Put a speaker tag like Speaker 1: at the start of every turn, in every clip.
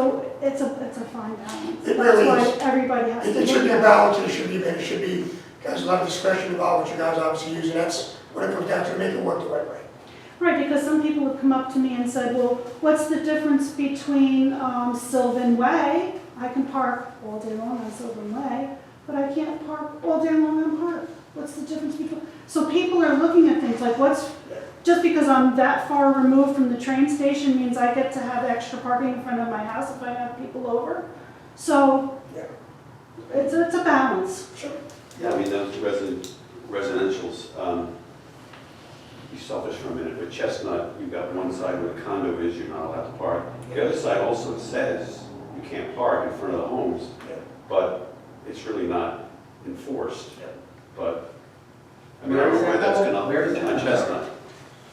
Speaker 1: So it's a, it's a fine balance.
Speaker 2: It really
Speaker 1: That's
Speaker 2: is.
Speaker 1: why everybody has to.
Speaker 2: It it should be a balance, and it should be, and it should be, there's a lot of discretion involved, which you guys obviously use, and that's what it comes down to, make it work the right way.
Speaker 1: Right, because some people have come up to me and said, well, what's the difference between um, Sylvan Way? I can park all day long on Sylvan Way, but I can't park all day long on Park. What's the difference between? So people are looking at things like what's, just because I'm that far removed from the train station means I get to have extra parking in front of my house if I have people over. So
Speaker 2: Yeah.
Speaker 1: it's, it's a balance.
Speaker 2: Sure.
Speaker 3: Yeah, I mean, those resident, residentials, um, be selfish for a minute, but Chestnut, you've got one side where the condo is, you're not allowed to park. The other side also says you can't park in front of the homes,
Speaker 2: Yeah.
Speaker 3: but it's really not enforced.
Speaker 2: Yeah.
Speaker 3: But, I mean, I don't know where that's gonna,
Speaker 4: Where is that?
Speaker 3: on Chestnut.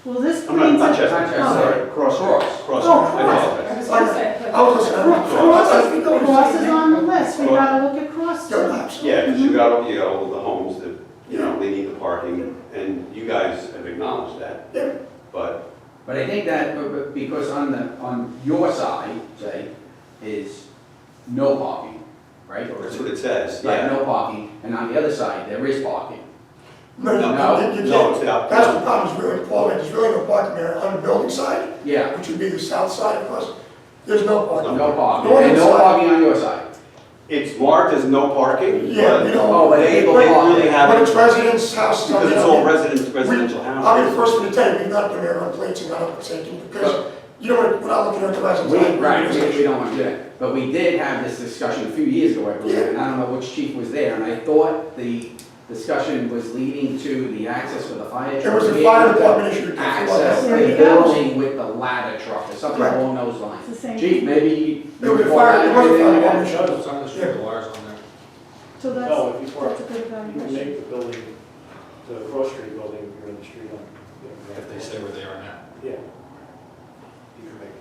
Speaker 1: Well, this
Speaker 3: I'm not,
Speaker 1: brings
Speaker 3: not
Speaker 1: up.
Speaker 3: Chestnut,
Speaker 1: Oh.
Speaker 3: sorry, Cross Road. Cross Road, I apologize.
Speaker 2: I was listening.
Speaker 1: Cross is, Cross is on the list, we gotta look at Cross.
Speaker 2: No,
Speaker 1: too.
Speaker 2: absolutely.
Speaker 3: Yeah, because you got, all- you got all the homes that, you know, they need the parking, and you guys have acknowledged that,
Speaker 2: Yeah.
Speaker 3: but
Speaker 4: But I think that, but- but because on the, on your side, say, is no parking, right? Or
Speaker 3: Oh, that's
Speaker 4: is
Speaker 3: what
Speaker 4: it-
Speaker 3: it says, yeah.
Speaker 4: Yeah, no parking, and on the other side, there is parking.
Speaker 2: No, no,
Speaker 4: No,
Speaker 2: you- you
Speaker 3: no,
Speaker 2: can't.
Speaker 3: it's out.
Speaker 2: That's the problem, is really, Paul, there's really no parking there on the building side,
Speaker 4: Yeah,
Speaker 2: which would be the south side of us, there's no parking.
Speaker 4: no parking,
Speaker 2: Northern
Speaker 4: and no
Speaker 2: side.
Speaker 4: parking on your side.
Speaker 3: It's marked as no parking,
Speaker 2: Yeah, you
Speaker 3: but
Speaker 2: know.
Speaker 4: Oh, but
Speaker 3: they
Speaker 4: able
Speaker 3: really
Speaker 4: parking.
Speaker 2: But it's
Speaker 3: have,
Speaker 2: residents' houses.
Speaker 3: because it's all resident, residential
Speaker 2: I'll be the
Speaker 3: houses.
Speaker 2: first one to tell you, we've not uh, been there on plates and not on safety, because, you know, we're not looking at the residents.
Speaker 4: We, right, we, we don't wanna do that, but we did have this discussion a few years ago, I believe, and I don't know which chief was there, and I thought the discussion was leading to the access for the fire
Speaker 2: It
Speaker 4: truck.
Speaker 2: was
Speaker 4: to
Speaker 2: a
Speaker 4: be
Speaker 2: fire
Speaker 4: able to
Speaker 2: department issue.
Speaker 4: Access
Speaker 1: There
Speaker 4: the
Speaker 1: you go.
Speaker 4: building with the ladder truck, or something
Speaker 2: Correct.
Speaker 4: along those
Speaker 1: It's the
Speaker 4: lines.
Speaker 1: same.
Speaker 4: Chief, maybe.
Speaker 2: It was a fire- it was a
Speaker 4: you
Speaker 2: fire
Speaker 4: can-
Speaker 2: department issue.
Speaker 5: Shows it's on the street, the wires on there.
Speaker 1: So
Speaker 6: No,
Speaker 1: that's,
Speaker 6: if you park,
Speaker 1: that's a good
Speaker 6: you can
Speaker 1: evaluation.
Speaker 6: make the building, the cross street building, you're in the street on. you know,
Speaker 5: If they stay where they are now.
Speaker 6: Yeah. You can make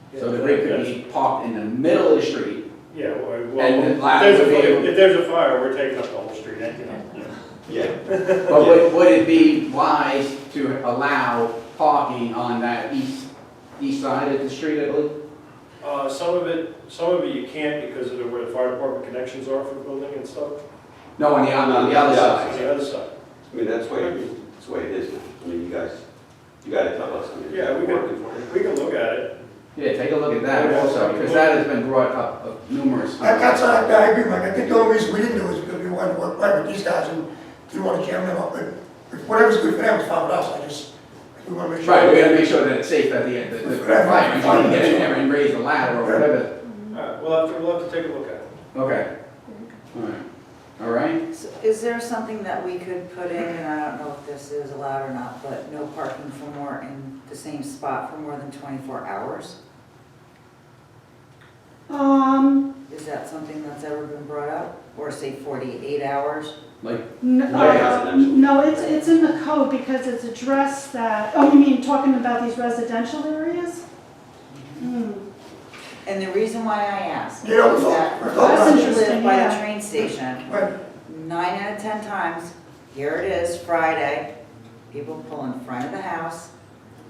Speaker 6: it.
Speaker 4: So the rig could be parked in the middle of the street,
Speaker 6: Yeah, well,
Speaker 4: And
Speaker 6: well,
Speaker 4: then
Speaker 6: if
Speaker 4: last
Speaker 6: there's a,
Speaker 4: would be-
Speaker 6: fire- if there's a fire, we're taking up the whole street, eh? ain't you know?
Speaker 3: Yeah,
Speaker 4: but would, would it be wise to allow parking on that east, east side of the street, I believe?
Speaker 6: Uh, some of it, some of it you can't because of the- where the fire department connections are for the building and stuff,
Speaker 4: No, on the, on the
Speaker 3: No,
Speaker 4: other,
Speaker 3: the other
Speaker 6: on
Speaker 4: side.
Speaker 6: the other side.
Speaker 3: I mean, that's the way, it- that's the way it is now. I mean, you guys, you gotta tell us, I mean,
Speaker 6: Yeah,
Speaker 3: we're
Speaker 6: we can-
Speaker 3: working for it.
Speaker 6: We can look at it.
Speaker 4: Yeah, take a look at that also, because that has been brought up uh, numerous
Speaker 2: I-
Speaker 4: times.
Speaker 2: That's, I, I agree, Mike, I think the only reason we didn't do it is because we wanted to work right with these guys and didn't want to jam them up, but if whatever's good for them is fine with us, I just, we want to make sure.
Speaker 4: Right, we gotta make sure that it's safe at the end, that the, the fire, you wanna get in there and raise the ladder or whatever.
Speaker 1: Mm-hmm.
Speaker 6: All right, we'll have to, we'll have to take a look at it.
Speaker 4: Okay. All right. All right?
Speaker 7: So Is there something that we could put in, and I don't know if this is allowed or not, but no parking for more in the same spot for more than 24 hours?
Speaker 1: Um,
Speaker 7: Is that something that's ever been brought up? Or say 48 hours?
Speaker 4: Like,
Speaker 1: n-
Speaker 3: Light
Speaker 1: uh,
Speaker 3: residential.
Speaker 1: no, it's, it's in the code because it's addressed that, oh, you mean talking about these residential areas? Hmm.
Speaker 7: And the reason why I ask is
Speaker 2: You know, it's all-
Speaker 7: that for
Speaker 2: it's all
Speaker 7: us who
Speaker 1: interesting,
Speaker 7: live by
Speaker 1: yeah.
Speaker 7: the train station,
Speaker 2: Right,
Speaker 7: nine out of 10 times, here it is, Friday, people pull in front of the house,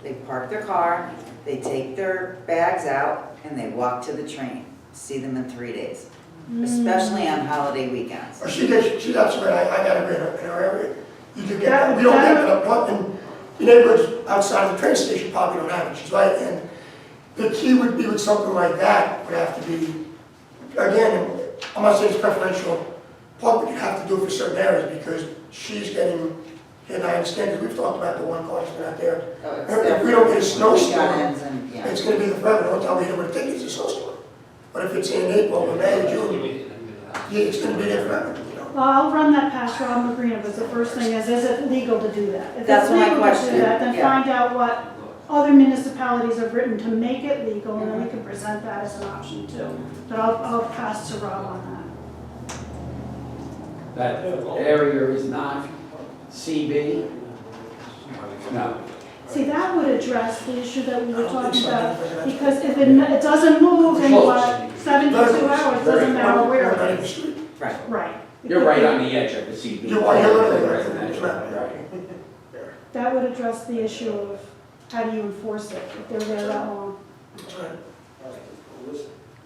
Speaker 7: they park their car, they take their bags out, and they walk to the train. See them in three days. especially on holiday weekends.
Speaker 2: Well, she did, she, that's right, I, I got a grant in our area, you could get
Speaker 1: That-
Speaker 2: that, we don't
Speaker 1: that-
Speaker 2: have it up front, and the neighborhoods outside of the train station probably don't have it, she's right, and the key would be with something like that, would have to be, again, I'm not saying it's preferential, but you have to do it for certain areas, because she's getting, and I understand, because we've talked about the one person out there,
Speaker 7: So it's
Speaker 2: if we don't get a snowstorm,
Speaker 7: Weekends and, yeah.
Speaker 2: it's gonna be the forever, don't tell me that we're thinking it's a snowstorm, but if it's in April, or May, June,
Speaker 5: uh,
Speaker 2: yeah, it's gonna be there forever, you know?
Speaker 1: Well, I'll run that past Rob Magrina, but the first thing is, is it legal to do that? If
Speaker 7: That's
Speaker 1: it's
Speaker 7: my
Speaker 1: legal to do
Speaker 7: question,
Speaker 1: that, Then
Speaker 7: yeah.
Speaker 1: find out what other municipalities have written to make it legal, and then we can present that as an option too. But I'll, I'll pass to Rob on
Speaker 4: that area is not CB? No.
Speaker 1: that. See, that would address the issue that we were talking about,
Speaker 2: Because
Speaker 1: because if it, it doesn't move in what, seventy-two hours, doesn't matter where it is.
Speaker 7: Right.
Speaker 1: Right.
Speaker 4: You're right on the edge of the CB.
Speaker 2: You're right, you're right, you're right.
Speaker 4: Residential, right.
Speaker 1: That would address the issue of how do you enforce it if they're there that long.
Speaker 2: That's right.